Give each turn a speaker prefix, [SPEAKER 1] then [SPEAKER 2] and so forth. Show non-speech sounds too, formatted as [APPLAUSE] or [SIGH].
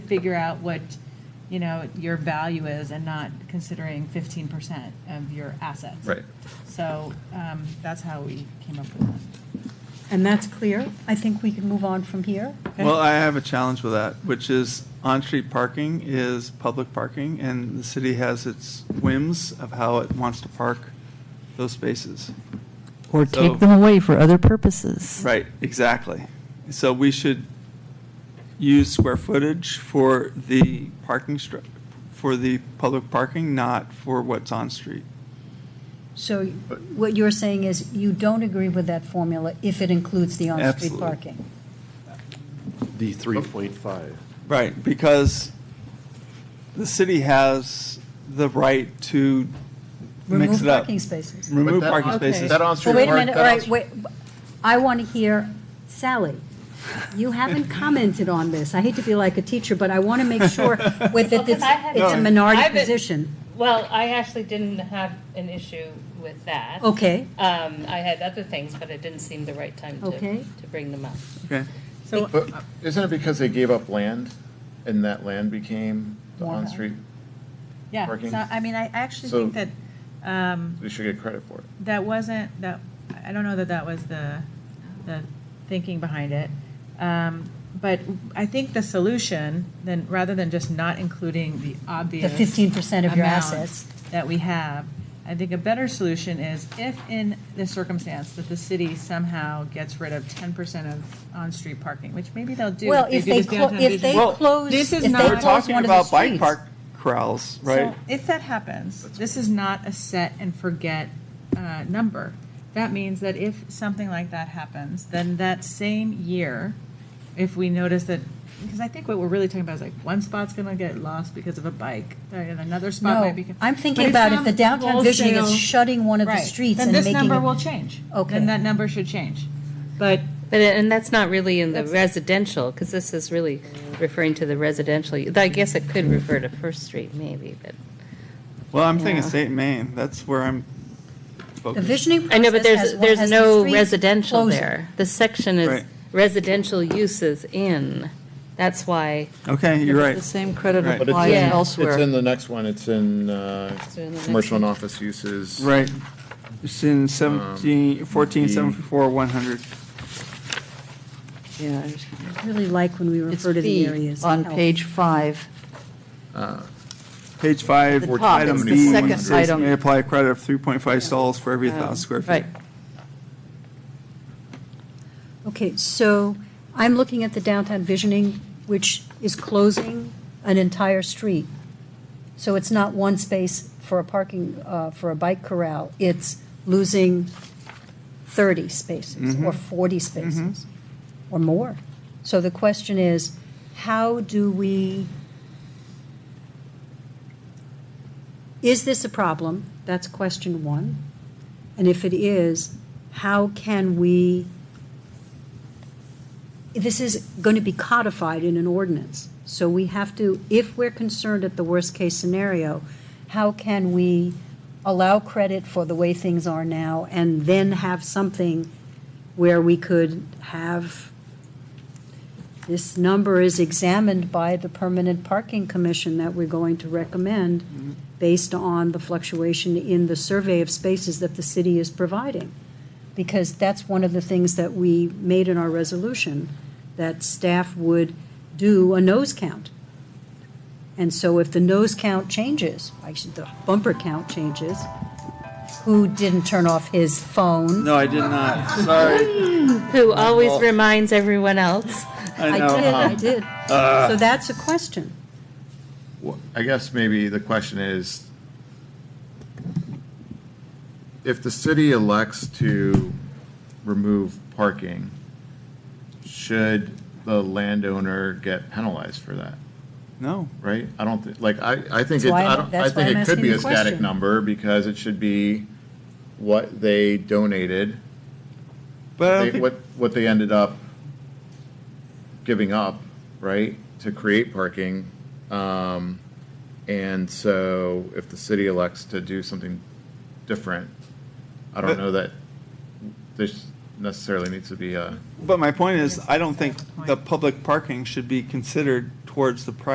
[SPEAKER 1] figure out what, you know, your value is and not considering fifteen percent of your assets.
[SPEAKER 2] Right.
[SPEAKER 1] So, um, that's how we came up with that.
[SPEAKER 3] And that's clear. I think we can move on from here.
[SPEAKER 1] Okay.
[SPEAKER 4] Well, I have a challenge with that, which is on-street parking is public parking, and the city has its whims of how it wants to park those spaces.
[SPEAKER 5] Or
[SPEAKER 4] So-
[SPEAKER 5] take them away for other purposes.
[SPEAKER 4] Right, exactly. So we should use square footage for the parking stru, for the public parking, not for what's on-street.
[SPEAKER 3] So what you're saying is you don't agree with that formula if it includes the on-street
[SPEAKER 4] Absolutely.
[SPEAKER 3] parking?
[SPEAKER 6] The 3.5.
[SPEAKER 4] Right, because the city has the right to mix
[SPEAKER 3] Remove
[SPEAKER 4] it up.
[SPEAKER 3] parking spaces.
[SPEAKER 6] But
[SPEAKER 4] Remove
[SPEAKER 6] that-
[SPEAKER 4] parking
[SPEAKER 1] Okay.
[SPEAKER 4] spaces.
[SPEAKER 6] That
[SPEAKER 3] Well,
[SPEAKER 6] on-street
[SPEAKER 3] wait a
[SPEAKER 6] park-
[SPEAKER 3] minute, all
[SPEAKER 6] that
[SPEAKER 3] right,
[SPEAKER 6] on-
[SPEAKER 3] wait. I want to hear, Sally,
[SPEAKER 6] [LAUGHS]
[SPEAKER 3] you haven't commented on this. I hate to be like a teacher, but I want to
[SPEAKER 6] [LAUGHS]
[SPEAKER 3] make sure with it,
[SPEAKER 7] Well, 'cause
[SPEAKER 3] it's
[SPEAKER 7] I have-
[SPEAKER 3] it's a
[SPEAKER 7] No.
[SPEAKER 3] minority
[SPEAKER 7] I've been-
[SPEAKER 3] position.
[SPEAKER 7] Well, I actually didn't have an issue with that.
[SPEAKER 3] Okay,
[SPEAKER 7] Um, I had other things, but it didn't seem the right time to,
[SPEAKER 3] Okay.
[SPEAKER 7] to bring them up.
[SPEAKER 4] Okay.
[SPEAKER 1] So
[SPEAKER 6] But uh, isn't it because they gave up land and that land became the
[SPEAKER 3] More
[SPEAKER 6] on-street?
[SPEAKER 1] Yeah,
[SPEAKER 6] Parking.
[SPEAKER 1] so, I mean, I actually
[SPEAKER 6] So-
[SPEAKER 1] think that, um,
[SPEAKER 6] We should get credit for it.
[SPEAKER 1] that wasn't, that, I don't know that that was the, the thinking behind it. Um, but I think the solution, then, rather than just not including the
[SPEAKER 3] the
[SPEAKER 1] obvious.
[SPEAKER 3] 15% of your
[SPEAKER 1] amount
[SPEAKER 3] assets.
[SPEAKER 1] That we have, I think a better solution is if in the circumstance that the city somehow gets rid of ten percent of on-street parking, which maybe they'll do.
[SPEAKER 3] Well, if
[SPEAKER 1] do
[SPEAKER 3] they,
[SPEAKER 1] this
[SPEAKER 3] clo-
[SPEAKER 1] downtown
[SPEAKER 3] if they
[SPEAKER 1] vision.
[SPEAKER 4] Well,
[SPEAKER 3] close, if
[SPEAKER 1] this is
[SPEAKER 3] they
[SPEAKER 1] not-
[SPEAKER 4] We're
[SPEAKER 3] close
[SPEAKER 4] talking
[SPEAKER 3] one of the
[SPEAKER 4] about bike
[SPEAKER 3] streets.
[SPEAKER 4] park corrals, right?
[SPEAKER 1] So if that happens, this is not a set and forget uh, number. That means that if something like that happens, then that same year, if we notice that, because I think what we're really talking about is like one spot's going to get lost because of a bike, and another spot might be.
[SPEAKER 3] No, I'm
[SPEAKER 1] But
[SPEAKER 3] thinking about if the
[SPEAKER 1] some
[SPEAKER 3] downtown visioning is
[SPEAKER 1] wholesale-
[SPEAKER 3] shutting one of the
[SPEAKER 1] Right.
[SPEAKER 3] streets
[SPEAKER 1] then
[SPEAKER 3] and
[SPEAKER 1] this
[SPEAKER 3] making.
[SPEAKER 1] number
[SPEAKER 3] it-
[SPEAKER 1] will change.
[SPEAKER 3] Okay.
[SPEAKER 1] Then that number should change. But
[SPEAKER 7] But, uh, and that's not really in the
[SPEAKER 1] That's-
[SPEAKER 7] residential, because this is really referring to the residential. I guess it could refer to First Street maybe, but.
[SPEAKER 4] Well, I'm thinking
[SPEAKER 7] Yeah.
[SPEAKER 4] state Maine. That's where I'm
[SPEAKER 3] The
[SPEAKER 4] focused.
[SPEAKER 3] visioning
[SPEAKER 7] I know, but
[SPEAKER 3] process
[SPEAKER 7] there's,
[SPEAKER 3] has one- has
[SPEAKER 7] there's
[SPEAKER 3] the
[SPEAKER 7] no
[SPEAKER 3] streets
[SPEAKER 7] residential
[SPEAKER 3] closing.
[SPEAKER 7] there. The section is
[SPEAKER 4] Right.
[SPEAKER 7] residential uses in. That's why.
[SPEAKER 4] Okay, you're
[SPEAKER 5] The
[SPEAKER 4] right.
[SPEAKER 5] same credit
[SPEAKER 4] Right. But
[SPEAKER 7] it's
[SPEAKER 5] applies
[SPEAKER 7] in- it's
[SPEAKER 5] elsewhere.
[SPEAKER 6] It's in the next one, it's in uh,
[SPEAKER 7] It's in the next
[SPEAKER 6] commercial and
[SPEAKER 7] one.
[SPEAKER 6] office uses.
[SPEAKER 4] Right. It's in 17, 14,
[SPEAKER 6] Um, the-
[SPEAKER 4] 74, 100.
[SPEAKER 5] Yeah.
[SPEAKER 3] I Really like when we
[SPEAKER 5] It's
[SPEAKER 3] refer to the
[SPEAKER 5] B
[SPEAKER 3] areas.
[SPEAKER 5] on
[SPEAKER 3] health.
[SPEAKER 5] page five.
[SPEAKER 4] Page five,
[SPEAKER 5] The top,
[SPEAKER 4] item
[SPEAKER 5] it's the
[SPEAKER 4] B,
[SPEAKER 5] second
[SPEAKER 4] says
[SPEAKER 5] item.
[SPEAKER 4] may apply a credit of 3.5 stalls for every 1,000 square feet.
[SPEAKER 5] Right.
[SPEAKER 3] Okay, so I'm looking at the downtown visioning, which is closing an entire street. So it's not one space for a parking, uh, for a bike corral. It's losing 30 spaces or 40 spaces or more. So the question is, how do we, is this a problem? That's question one. And if it is, how can we? this is going to be codified in an ordinance. So we have to, if we're concerned at the worst-case scenario, how can we allow credit for the way things are now and then have something where we could have, this number is examined by the Permanent Parking Commission that we're going to recommend based on the fluctuation in the survey of spaces that the city is providing because that's one of the things that we made in our resolution, that staff would do a nose count. And so if the nose count changes, actually, the bumper count changes, who didn't turn off his phone?
[SPEAKER 4] No, I did not. Sorry.
[SPEAKER 7] Who always reminds everyone else.
[SPEAKER 4] I know.
[SPEAKER 3] I did, I did. So that's a question.
[SPEAKER 6] Well, I guess maybe the question is, if the city elects to remove parking, should the landowner get penalized for that,
[SPEAKER 4] No.
[SPEAKER 6] right? I don't, thi- like, I, I think,
[SPEAKER 3] That's
[SPEAKER 6] it-
[SPEAKER 3] why
[SPEAKER 6] I
[SPEAKER 3] I'm-
[SPEAKER 6] don't, I
[SPEAKER 3] that's why
[SPEAKER 6] think
[SPEAKER 3] I'm
[SPEAKER 6] it could
[SPEAKER 3] asking
[SPEAKER 6] be
[SPEAKER 3] the
[SPEAKER 6] a static
[SPEAKER 3] question.
[SPEAKER 6] number because it should be what they donated,
[SPEAKER 4] But I don't
[SPEAKER 6] they-
[SPEAKER 4] think-
[SPEAKER 6] what, what they ended up giving up, right, to create parking. Um, and so if the city elects to do something different, I don't
[SPEAKER 4] But-
[SPEAKER 6] know that this necessarily needs to be a.
[SPEAKER 4] but my point is, I don't think the public parking should be considered towards the price